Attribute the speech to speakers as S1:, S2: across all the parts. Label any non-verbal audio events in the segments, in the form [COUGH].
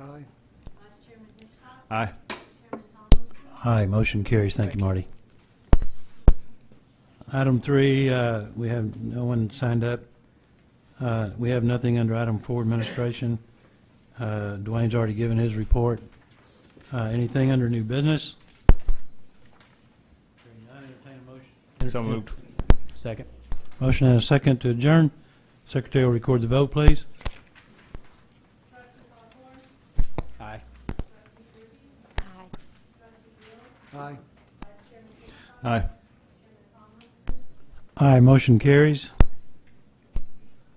S1: Aye.
S2: Vice Chairman Hitchcock,
S3: Aye.
S2: Chairman Tomlinson,
S4: Aye, motion carries. Thank you, Marty. Item three, uh, we have no one signed up. Uh, We have nothing under item four, administration. Uh, Dwayne's already given his report. Uh, Anything under new business? Hearing none, entertain a motion.
S3: So moved. Second.
S4: Motion and a second to adjourn. Secretary will record the vote, please.
S2: Trustee Ballhorn,
S3: Aye.
S2: Trustee Ruby,
S5: Aye.
S2: Trustee Wills,
S1: Aye.
S2: Vice Chairman Hitchcock,
S3: Aye.
S2: Chairman Tomlinson,
S4: Aye, motion carries.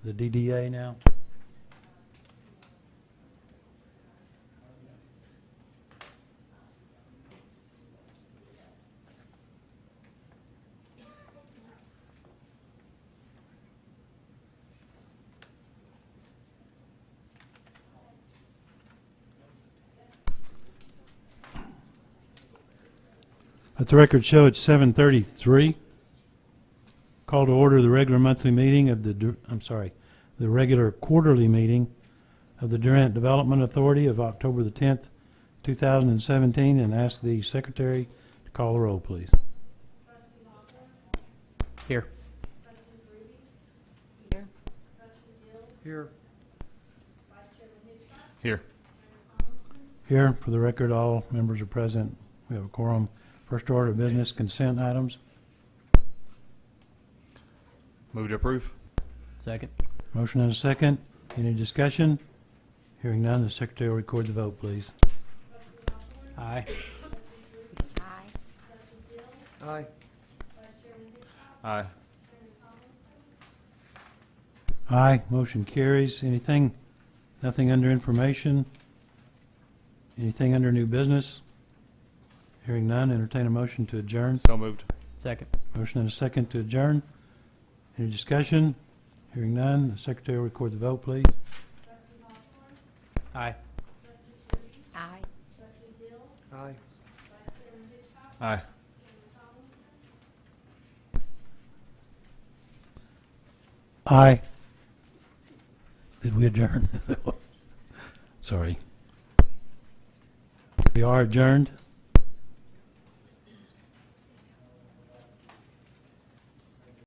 S4: The DDA now. Let the record show it's 7:33. Call to order the regular monthly meeting of the, Dur- I'm sorry, the regular quarterly meeting of the Durant Development Authority of October the 10th, 2017, and ask the secretary to call the roll, please.
S2: Trustee Ballhorn,
S3: Here.
S2: Trustee Ruby,
S5: Here.
S2: Trustee Wills,
S1: Here.
S2: Vice Chairman Hitchcock,
S3: Here.
S2: Chairman Tomlinson,
S4: Here, for the record, all members are present. We have a quorum. First order of business, consent items.
S3: Move to approve. Second.
S4: Motion and a second. Any discussion? Hearing none, the secretary will record the vote, please.
S3: Aye.
S5: Aye.
S1: Aye.
S3: Aye.
S4: Aye, motion carries. Anything, nothing under information? Anything under new business? Hearing none, entertain a motion to adjourn.
S3: So moved. Second.
S4: Motion and a second to adjourn. Any discussion? Hearing none, the secretary will record the vote, please.
S3: Aye.
S5: Aye.
S1: Aye.
S3: Aye.
S4: Aye. Did we [LAUGHS] adjourn? Sorry. We are adjourned.